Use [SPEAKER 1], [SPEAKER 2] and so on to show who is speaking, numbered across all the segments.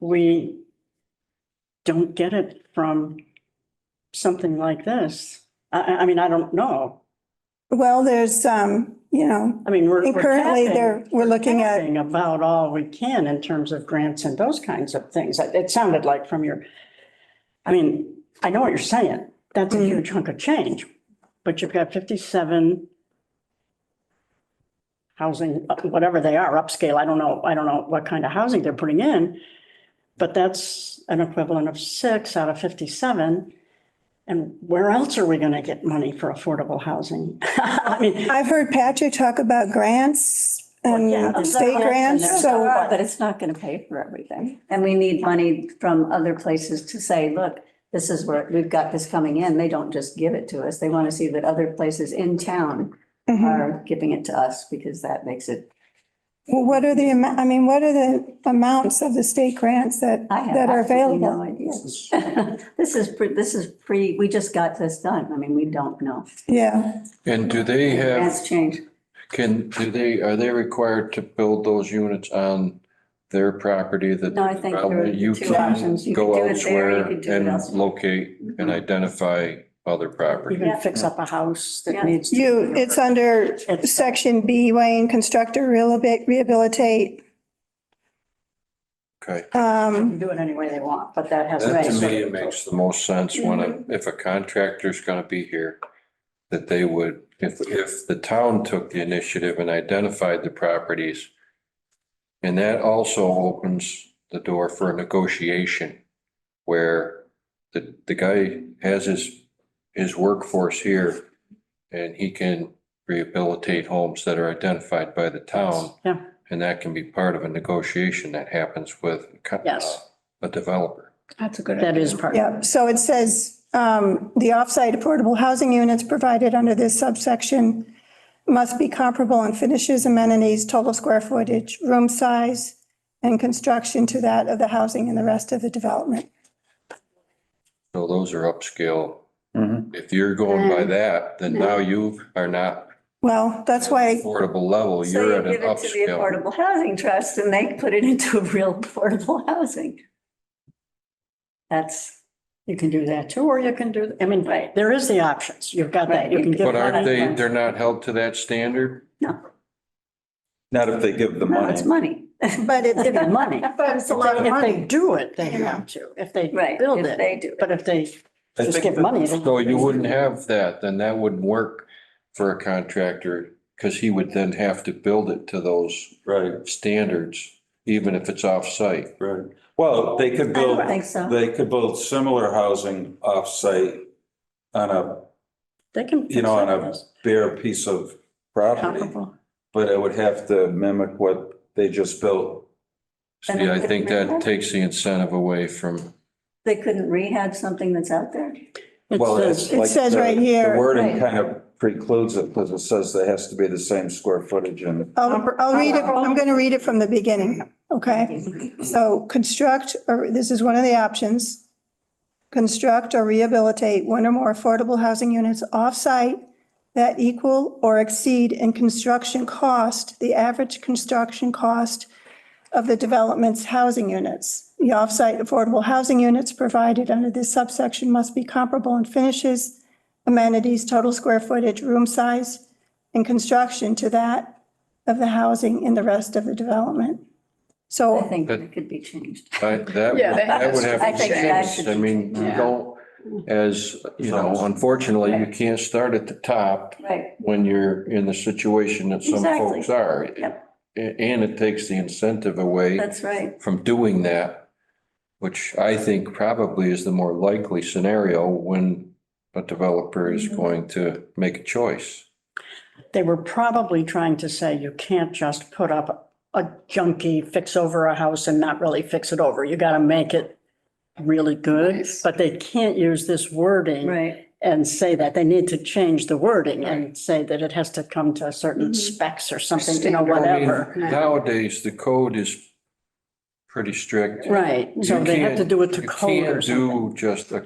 [SPEAKER 1] we don't get it from something like this. I, I, I mean, I don't know.
[SPEAKER 2] Well, there's, um, you know,
[SPEAKER 1] I mean, we're.
[SPEAKER 2] and
[SPEAKER 1] we're
[SPEAKER 2] currently
[SPEAKER 1] tapping-
[SPEAKER 2] there, we're looking at,
[SPEAKER 1] tapping About all we can in terms of grants and those kinds of things. It it sounded like from your, I mean, I know what you're saying. That's a
[SPEAKER 2] Mhm.
[SPEAKER 1] huge chunk of change, but you've got fifty-seven housing, uh, whatever they are, upscale. I don't know, I don't know what kind of housing they're putting in. But that's an equivalent of six out of fifty-seven. And where else are we gonna get money for affordable housing? I mean,
[SPEAKER 2] I've heard Patrick talk about grants
[SPEAKER 1] yeah,
[SPEAKER 2] and
[SPEAKER 1] there's grants
[SPEAKER 2] state
[SPEAKER 1] and
[SPEAKER 2] grants,
[SPEAKER 1] there's-
[SPEAKER 2] so,
[SPEAKER 3] But but it's not going to pay for everything. And we need money from other places to say, look, this is where, we've got this coming in. They don't just give it to us. They want to see that other places in town
[SPEAKER 2] mhm.
[SPEAKER 3] are giving it to us because that makes it,
[SPEAKER 2] well, what are the, amou- I mean, what are the amounts of the state grants that,
[SPEAKER 3] I have
[SPEAKER 2] that are
[SPEAKER 3] absolutely no
[SPEAKER 2] available?
[SPEAKER 3] idea. This is, pre- this is pre, we just got this done. I mean, we don't know.
[SPEAKER 2] Yeah,
[SPEAKER 4] And do they have,
[SPEAKER 3] That's changed.
[SPEAKER 4] can, do they, are they required to build those units on their property that?
[SPEAKER 3] No, I think there
[SPEAKER 4] development?
[SPEAKER 3] are
[SPEAKER 4] You
[SPEAKER 3] two
[SPEAKER 4] can
[SPEAKER 3] options. You
[SPEAKER 4] Go
[SPEAKER 3] could do it there, you
[SPEAKER 4] elsewhere
[SPEAKER 3] could do it
[SPEAKER 4] and
[SPEAKER 3] elsewhere. Mm-hmm.
[SPEAKER 4] locate and identify other
[SPEAKER 1] you
[SPEAKER 4] property.
[SPEAKER 1] can fix up a house
[SPEAKER 3] Yeah.
[SPEAKER 1] that needs. to-
[SPEAKER 2] you, it's under
[SPEAKER 1] It's-
[SPEAKER 2] section B, Wayne, construct or rehabilitate- rehabilitate.
[SPEAKER 4] Okay.
[SPEAKER 2] Um,
[SPEAKER 1] can do it any way they want, but that has.
[SPEAKER 4] That to
[SPEAKER 3] Right.
[SPEAKER 4] me makes the most sense when, a- if a contractor's gonna be here, that they would, if, if the town took the initiative and identified the properties. And that also opens the door for a negotiation where the, the guy has his, his workforce here and he can rehabilitate homes that are identified by the town.
[SPEAKER 1] Yeah.
[SPEAKER 4] And that can be part of a negotiation that happens with a co- uh,
[SPEAKER 1] Yes.
[SPEAKER 4] a developer.
[SPEAKER 5] That's a good idea.
[SPEAKER 1] That is part.
[SPEAKER 2] yeah, so it says, um, the offsite affordable housing units provided under this subsection must be comparable in finishes, amenities, total square footage, room size, and construction to that of the housing and the rest of the development.
[SPEAKER 4] So those are upscale.
[SPEAKER 6] Mhm.
[SPEAKER 4] If you're going by that, then now you are not.
[SPEAKER 2] Well, that's why,
[SPEAKER 4] Affordable level,
[SPEAKER 3] So
[SPEAKER 4] you're
[SPEAKER 3] you
[SPEAKER 4] at an
[SPEAKER 3] give it to the
[SPEAKER 4] upscale.
[SPEAKER 3] Affordable Housing Trust and they put it into real affordable housing. That's,
[SPEAKER 1] You can do that too, or you can do, I mean, there is the options. You've got that. You can give.
[SPEAKER 4] But aren't they,
[SPEAKER 1] money.
[SPEAKER 4] they're not held to that standard?
[SPEAKER 3] no,
[SPEAKER 6] Not if they give the
[SPEAKER 3] no,
[SPEAKER 6] money.
[SPEAKER 3] it's money.
[SPEAKER 2] but it,
[SPEAKER 1] Give you money.
[SPEAKER 2] but it's a lot of
[SPEAKER 1] If
[SPEAKER 2] money.
[SPEAKER 1] they do it, they
[SPEAKER 2] Yeah.
[SPEAKER 1] have to. If they
[SPEAKER 3] Right,
[SPEAKER 1] build
[SPEAKER 3] if
[SPEAKER 1] it.
[SPEAKER 3] they do.
[SPEAKER 1] But if they
[SPEAKER 6] I
[SPEAKER 1] just
[SPEAKER 6] think
[SPEAKER 1] give
[SPEAKER 6] that-
[SPEAKER 1] money. they-
[SPEAKER 4] So you wouldn't have that, then that wouldn't work for a contractor because he would then have to build it to those
[SPEAKER 6] Right,
[SPEAKER 4] standards, even if it's off-site.
[SPEAKER 6] right. Well, they could
[SPEAKER 3] I
[SPEAKER 6] build,
[SPEAKER 3] don't think so.
[SPEAKER 6] they could build similar housing off-site on a
[SPEAKER 1] They can.
[SPEAKER 6] You know, on a-
[SPEAKER 1] fix
[SPEAKER 6] bare piece of
[SPEAKER 1] it.
[SPEAKER 6] property,
[SPEAKER 1] Comparable.
[SPEAKER 6] but it would have to mimic what they just built.
[SPEAKER 4] See, I think that takes the incentive away from,
[SPEAKER 3] They couldn't rehab something that's out there.
[SPEAKER 1] It
[SPEAKER 6] Well,
[SPEAKER 1] says,
[SPEAKER 2] It
[SPEAKER 6] like
[SPEAKER 2] says
[SPEAKER 6] the-
[SPEAKER 2] right here.
[SPEAKER 6] The wording
[SPEAKER 3] Right.
[SPEAKER 6] kind of precludes it because it says there has to be the same square footage and
[SPEAKER 2] I'll, I'll read it, I'm going to read it from the beginning, okay? So construct, or this is one of the options. Construct or rehabilitate one or more affordable housing units off-site that equal or exceed in construction cost, the average construction cost of the development's housing units. The off-site affordable housing units provided under this subsection must be comparable in finishes, amenities, total square footage, room size, and construction to that of the housing in the rest of the development.
[SPEAKER 3] I
[SPEAKER 2] So,
[SPEAKER 3] think
[SPEAKER 4] But-
[SPEAKER 3] it could be changed.
[SPEAKER 4] I- that, would-
[SPEAKER 5] Yeah, that
[SPEAKER 4] that would
[SPEAKER 5] has-
[SPEAKER 4] have
[SPEAKER 3] I
[SPEAKER 4] to
[SPEAKER 3] think that
[SPEAKER 4] change.
[SPEAKER 3] should
[SPEAKER 4] I mean, you
[SPEAKER 5] Yeah.
[SPEAKER 4] don't, as, you know, unfortunately, you can't start at the top
[SPEAKER 3] Right.
[SPEAKER 4] when you're in the situation that some
[SPEAKER 3] Exactly.
[SPEAKER 4] folks are.
[SPEAKER 3] Yep.
[SPEAKER 4] A- And it takes the incentive away
[SPEAKER 3] That's right.
[SPEAKER 4] from doing that, which I think probably is the more likely scenario when a developer is
[SPEAKER 3] Mm-hmm.
[SPEAKER 4] going to make a choice.
[SPEAKER 1] they were probably trying to say you can't just put up a junky fix over a house and not really fix it over. You got to make it really good,
[SPEAKER 5] Nice.
[SPEAKER 1] but they can't use this wording.
[SPEAKER 3] Right.
[SPEAKER 1] and say that. They need to change the wording and say that it has to come to certain specs or something, you know,
[SPEAKER 4] I mean,
[SPEAKER 1] whatever.
[SPEAKER 4] Nowadays, the code is pretty strict.
[SPEAKER 1] Right, so
[SPEAKER 4] You
[SPEAKER 1] they have to
[SPEAKER 4] can't-
[SPEAKER 1] do it to
[SPEAKER 4] You
[SPEAKER 1] code or
[SPEAKER 4] can't
[SPEAKER 1] something.
[SPEAKER 4] do just a,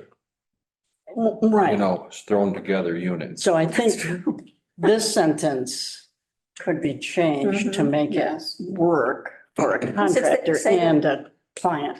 [SPEAKER 4] you
[SPEAKER 1] Mm, Right,
[SPEAKER 4] know, thrown together unit.
[SPEAKER 1] so I think this sentence could be changed to make it
[SPEAKER 5] Yes.
[SPEAKER 1] work for a
[SPEAKER 3] Since they
[SPEAKER 1] contractor
[SPEAKER 3] say that-
[SPEAKER 1] and a client.